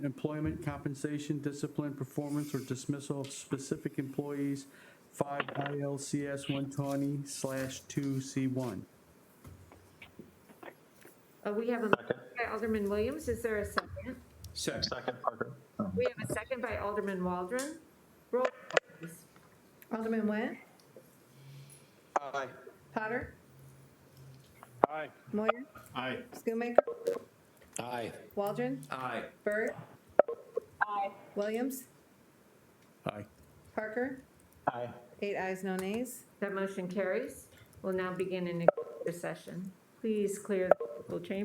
employment, compensation, discipline, performance, or dismissal of specific employees, 5 ILCS 120/2C1. Uh, We have a motion by Alderman Williams. Is there a second? Second. Second, Parker. We have a second by Alderman Waldron. Roll call, please. Alderman Went, Aye. Potter, Aye. Moyer, Aye. Schoonmaker, Aye. Waldron, Aye. Burt. Williams, Aye. Parker, Aye. eight ayes, no nays. That motion carries. We'll now begin an executive session. Please clear the vocal chamber.